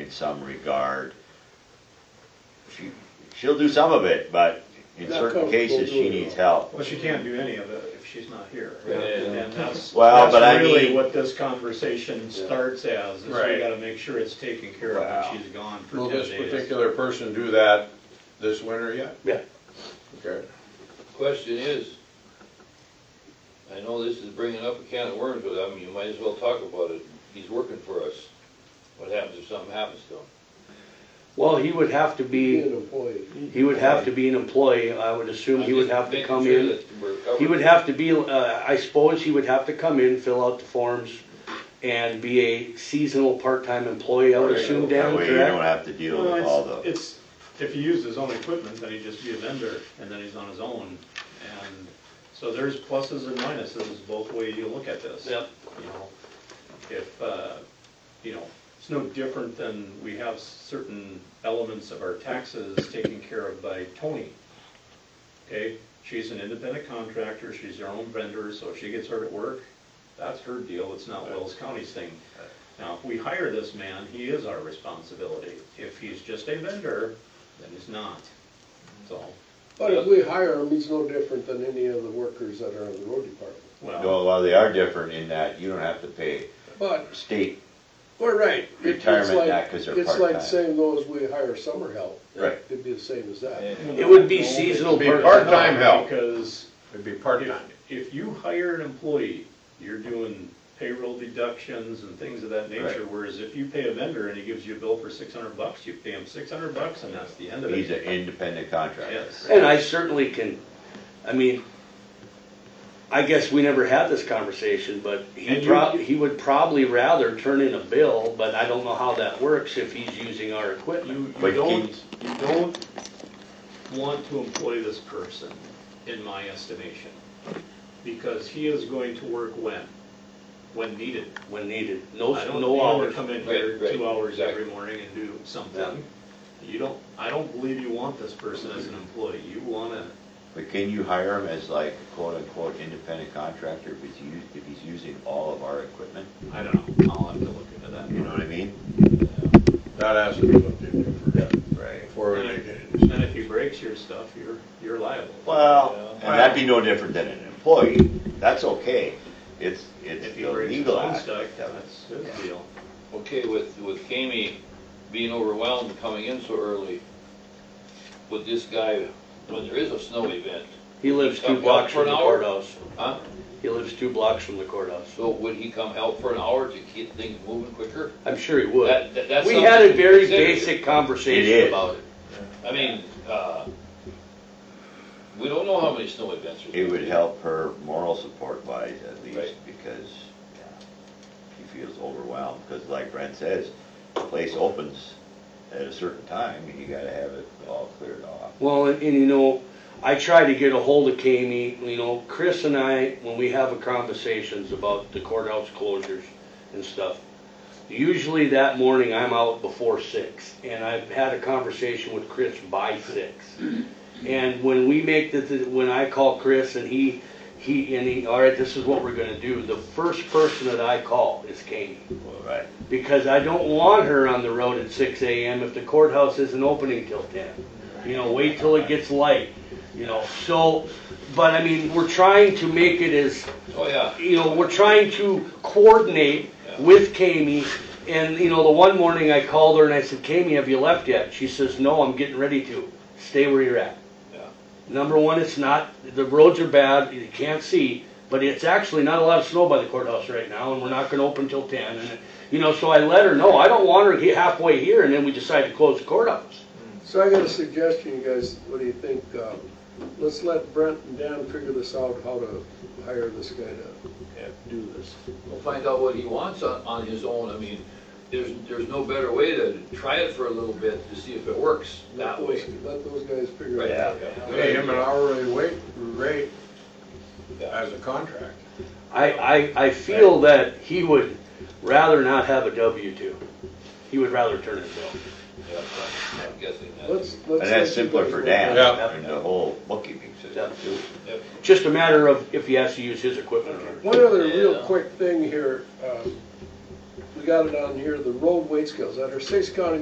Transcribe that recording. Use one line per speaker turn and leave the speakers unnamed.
in some regard. She, she'll do some of it, but in
Not
certain
comfortable
cases, she
doing it
needs
all.
help.
Well, she can't do any of it if she's not here.
Yeah.
And that's,
Well,
that's
but I
really
mean-
what this conversation starts as, is we
Right.
gotta make sure it's taken care of
Wow.
when she's gone
Will
for
this
ten days.
particular person do that this winter yet?
Yeah.
Okay.
Question is, I know this is bringing up a can of worms, but I mean, you might as well talk about it. He's working for us. What happens if something happens to him?
Well, he would have to
Be
be,
an employee.
he would have to be an employee, I would assume, he
I'm
would
just
have to
making
come
sure
in.
that we're covered.
He would have to be, uh, I suppose he would have to come in, fill out the forms, and be a seasonal part-time employee, I would assume,
That
Dan,
way you don't
correct?
have to deal
Well,
with all the.
it's, it's, if he used his own equipment, then he'd just be a vendor, and then he's on his own. And so there's pluses and minuses both way you look at this.
Yep.
You know, if, uh, you know, it's no different than we have certain elements of our taxes taken care of by Tony. Okay, she's an independent contractor, she's her own vendor, so if she gets hurt at work, that's her deal, it's not Wells County's thing. Now, if we hire this man, he is our responsibility. If he's just a vendor, then he's not. So,
But if we hire him, he's no different than any of the workers that are in the road department.
well,
Well, well, they are different in that you don't have to pay
But,
state.
we're right. It- it's
Retirement,
like-
not 'cause they're
It's like the
part-time.
same though as we hire summer help.
Right.
It'd be the same as that.
And
It would be seasonal
Be
part,
part-time help,
because
it'd be
If,
part-time.
if you hire an employee, you're doing payroll deductions and things of that nature,
Right.
whereas if you pay a vendor and he gives you a bill for six hundred bucks, you pay him six hundred bucks and that's the end of it.
He's an independent contractor.
Yes.
and I certainly can, I mean, I guess we never had this conversation, but
And
he
you-
prob, he would probably rather turn in a bill, but I don't know how that works if he's using our equipment.
You, you
But
don't, you don't want to employ this person, in my estimation, because he is going to work when? When needed.
When needed, no,
I don't
no
want to
hours.
come in
Right,
here
right,
two hours every
exactly.
morning and do
Yeah.
something. You don't, I don't believe you want this person as an employee. You want to
But can you hire him as like quote unquote independent contractor if he's used, if he's using all of our equipment?
I don't know, I'll have to look into that.
You know what I mean?
That has to be looked into first,
Right.
before we make any
And
decision.
if he breaks your stuff, you're, you're liable.
Well, and that'd be no different than an employee. That's okay. It's, it's
If
the
he breaks his
legal
own
act. of
stuff,
it.
that's his deal.
Okay, with, with Kami being overwhelmed and coming in so early, would this guy, when there is a snow event,
He lives
Come
two
out
blocks
for
from
an
the
hour?
courthouse.
huh?
He lives two blocks from the courthouse.
So would he come help for an hour to keep things moving quicker?
I'm sure he would.
That, that- that's
We
something
had a
to
very
consider.
basic
It is.
conversation about it.
I mean, uh, we don't know how many snow events there's.
It would help her moral support wise at least
Right.
because she feels overwhelmed. Because like Brent says, the place opens at a certain time and you gotta have it all cleared off.
Well, and, and you know, I try to get a hold of Kami, you know, Chris and I, when we have a conversations about the courthouse closures and stuff, usually that morning I'm out before six, and I've had a conversation with Chris by six. And when we make the, the- when I call Chris and he, he, and he, all right, this is what we're gonna do, the first person that I call is Kami.
Well, Right.
because I don't want her on the road at six AM if the courthouse isn't opening till ten. You know, wait till it gets light, you know, so, but I mean, we're trying to make it as,
Oh, yeah.
you know, we're trying to coordinate with Kami. And, you know, the one morning I called her and I said, Kami, have you left yet? She says, no, I'm getting ready to. Stay where you're at.
Yeah.
Number one, it's not, the roads are bad, you can't see, but it's actually not a lot of snow by the courthouse right now, and we're not gonna open till ten, and, you know, so I let her know, I don't want her he- halfway here, and then we decide to close the courthouse.
So I got a suggestion, you guys, what do you think? Um, Let's let Brent and Dan figure this out, how to hire this guy to do this.
We'll find out what he wants on, on his own. I mean, there's, there's no better way to try it for a little bit to see if it works
Let
that
those,
way.
let those guys figure
Right.
it out.
Pay him an hourly wait, rate
Yeah.
as a contract.
I, I, I feel that he would rather not have a W two. He would rather turn it down.
Yeah, I'm guessing that.
Let's, let's.
And that's
let you
simpler
guys
for
work
Dan,
on it.
Yeah.
and the whole bookkeeping system too.
Yep.
Just a matter of if he has to use his equipment or not.
One other real
Yeah.
uh, quick thing here, um, we got it on here, the road weight scales, under six county